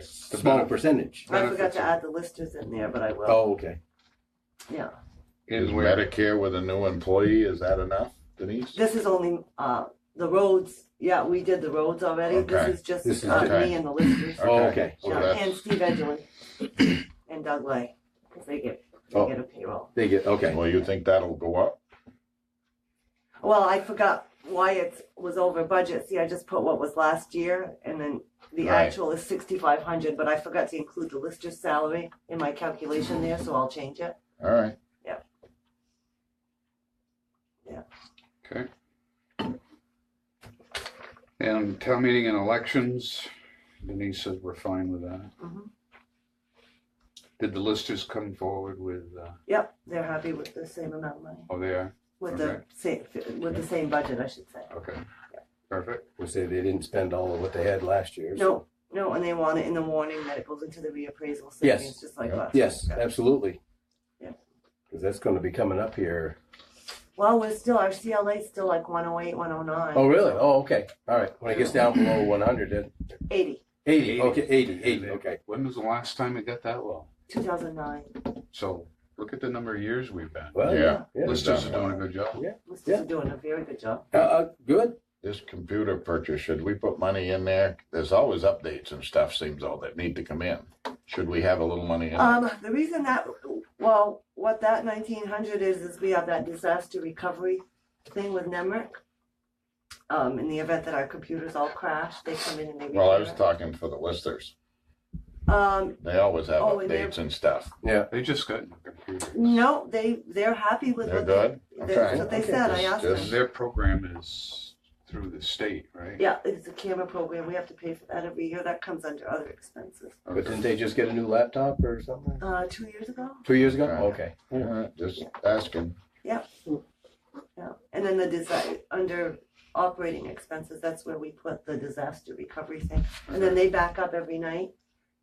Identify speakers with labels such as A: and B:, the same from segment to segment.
A: the
B: small
A: benefit
B: percentage.
C: I forgot
A: Benefits
C: to
A: of-
C: add the listers in there, but I will.
B: Oh, okay.
C: Yeah.
A: is
D: Is
A: where
D: Medicare with a new employee, is that enough, Denise?
C: This is only, uh, the roads, yeah, we did the roads already. This
D: Okay.
C: is just
B: This is
C: uh,
D: okay.
C: me and the listers.
B: Oh, okay.
D: So
C: Yeah,
D: that's-
C: And Steve Edgley and Doug Lay, 'cause they get, they
B: Oh.
C: get a payroll.
B: They get okay.
D: Well, you think that'll go up?
C: Well, I forgot why it was over budget. See, I just put what was last year and then the
D: Right.
C: actual is sixty-five hundred, but I forgot to include the lister's salary in my calculation there, so I'll change it.
D: All right,
A: okay. And town meeting and elections, Denise says we're fine with that.
C: Mhm.
A: Did the listers come forward with? Uh,
C: Yep, they're happy with the same amount of money,
A: oh, they are.
C: with the same, with the same budget, I should say.
A: Okay. Perfect.
B: We say they didn't spend all of what they had last year. so-
C: No, no, and they want it in the warning that it goes into the reappraisal
B: Yes.
C: savings, just like
D: Yeah.
C: last.
B: Yes,
C: year.
B: absolutely.
C: Yeah.
B: Because that's going to be coming up here.
C: Well, we're still, our CLA's still like one oh eight, one oh nine.
B: Oh, really? Oh, okay. All right. When it gets down below 100, then
C: Eighty,
B: 80. Okay, 80, 80. Okay.
A: When was the last time it got that low?
C: two thousand nine,
A: So look at the number of years we've been.
B: Well,
D: yeah.
B: yeah.
A: Listers are doing a good job.
C: listers are doing a very good job.
B: Uh, uh, good.
D: This computer purchase, should we put money in there? There's always updates and stuff, seems all that need to come in. Should we have a little money in?
C: Um, the reason that, well, what that nineteen hundred is, is we have that disaster recovery thing with NEMRIC. Um, in the event that our computers all crash, they come in and they.
D: Well, I
C: repair
D: was
C: it.
D: talking for the listers.
C: Um,
D: They always have
C: Oh, and they're-
D: updates and stuff.
A: They just got new computers.
C: no, they, they're happy with.
D: They're
C: what they-
D: good?
C: That's
D: Okay.
C: what they said, I asked
D: Just-
C: them.
A: Their program is through the state, right?
C: Yeah, it's a camera program, we have to pay for that every year, that comes under other expenses.
B: But didn't they just get a new laptop or something?
C: Uh, two years ago,
B: Two years ago?
D: Right.
B: Okay.
D: All right, Just asking.
C: yeah, and then the design, under operating expenses, that's where we put the disaster recovery thing. And then they back up every night.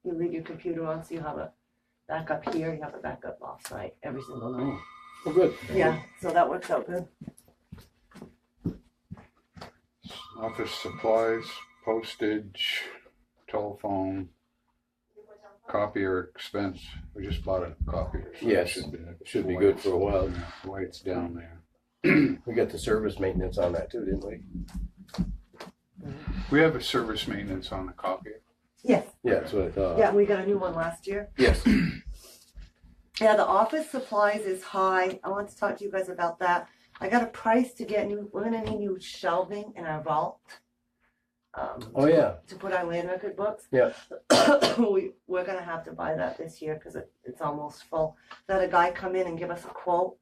C: You leave your computer on, so you have a backup here, you have a backup offsite every single night.
B: Well, good.
C: Yeah, so that works out good.
A: Office supplies, postage, telephone, copier expense. We just bought a copier. so that
B: Yes,
A: should be-
B: should be good for a while.
A: Yeah, Why it's down there.
B: We got the service maintenance on that too, didn't we?
A: We have a service maintenance on the copier.
C: Yes,
B: Yeah, that's what uh, I thought.
C: yeah, we got a new one last year.
B: Yes.
C: Yeah, the office supplies is high. I want to talk to you guys about that. I got a price to get new, we're gonna need new shelving in our vault. um,
B: Oh, yeah.
C: To put our land record books.
B: Yeah.
C: We, we're gonna have to buy that this year because it, it's almost full. Let a guy come in and give us a quote,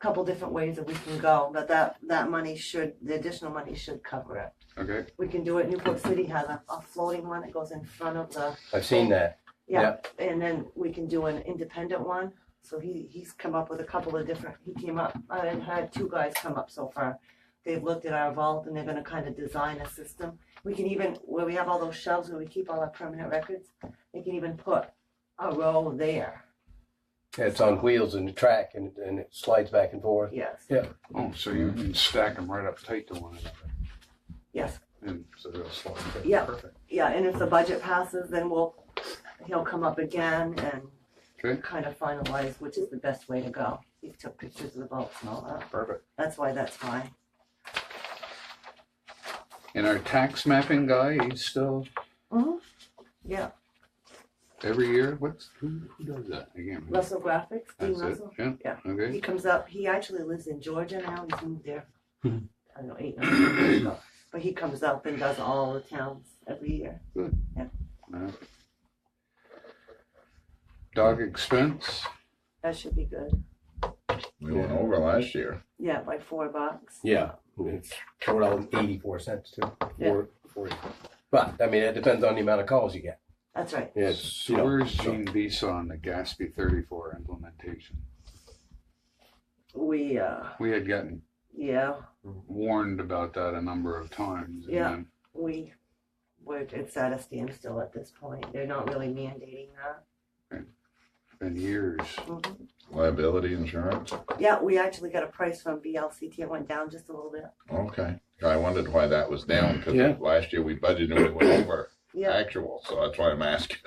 C: a couple different ways that we can go, but that, that money should, the additional money should cover it.
A: Okay,
C: We can do it. Newport City has a, a floating one that goes in front of the
B: I've seen that.
C: yeah, and then we can do an independent one. So he, he's come up with a couple of different, he came up, I had two guys come up so far. They've looked at our vault and they're gonna kind of design a system. We can even, where we have all those shelves where we keep all our permanent records, they can even put a row there,
B: It's on wheels and the track and, and it slides back and forth.
C: yes,
A: oh, so you can stack them right up tight to one another,
C: yes.
A: and so they'll slide. Okay,
C: Yeah.
A: Perfect.
C: Yeah, and if the budget passes, then we'll, he'll come up again
A: Okay.
C: and kind of finalize which is the best way to go. He took pictures of the vaults and all that,
A: Perfect.
C: that's why that's fine.
A: And our tax mapping guy, he's still
C: Mhm. Yeah.
A: every year, what's, who, who does that? I can't remember.
C: Russell Graphics, Dean
A: That's it,
C: Russell.
A: yeah,
C: He
A: okay.
C: comes up, he actually lives in Georgia now, he's moved there, I
A: Mhm.
C: don't know, eight, nine years ago. But he comes up and does all the towns every year.
A: Alright. Dog expense,
C: That should be good.
D: We went over last year.
C: Yeah, by four bucks.
B: Yeah. It's four dollars eighty-four cents too.
C: Yeah.
B: Four, forty. But, I mean, it depends on the amount of calls you get.
C: That's right.
B: It's, you
A: so
B: know.
A: where's
B: so-
A: Gene Visa on the Gatsby thirty-four implementation?
C: We, uh,
A: We had gotten
C: yeah,
A: warned about that a number of times. and
C: Yeah.
A: then-
C: we, we're, it's at a standstill at this point. They're not really mandating that.
A: Been years.
C: Mhm.
D: Liability insurance?
C: Yeah, we actually got a price from BLCT. It went down just a little bit.
D: Okay. I wondered why that was down, because
B: Yeah.
D: last year we budgeted and we went over
C: Yeah.
D: actual, so that's why I'm asking.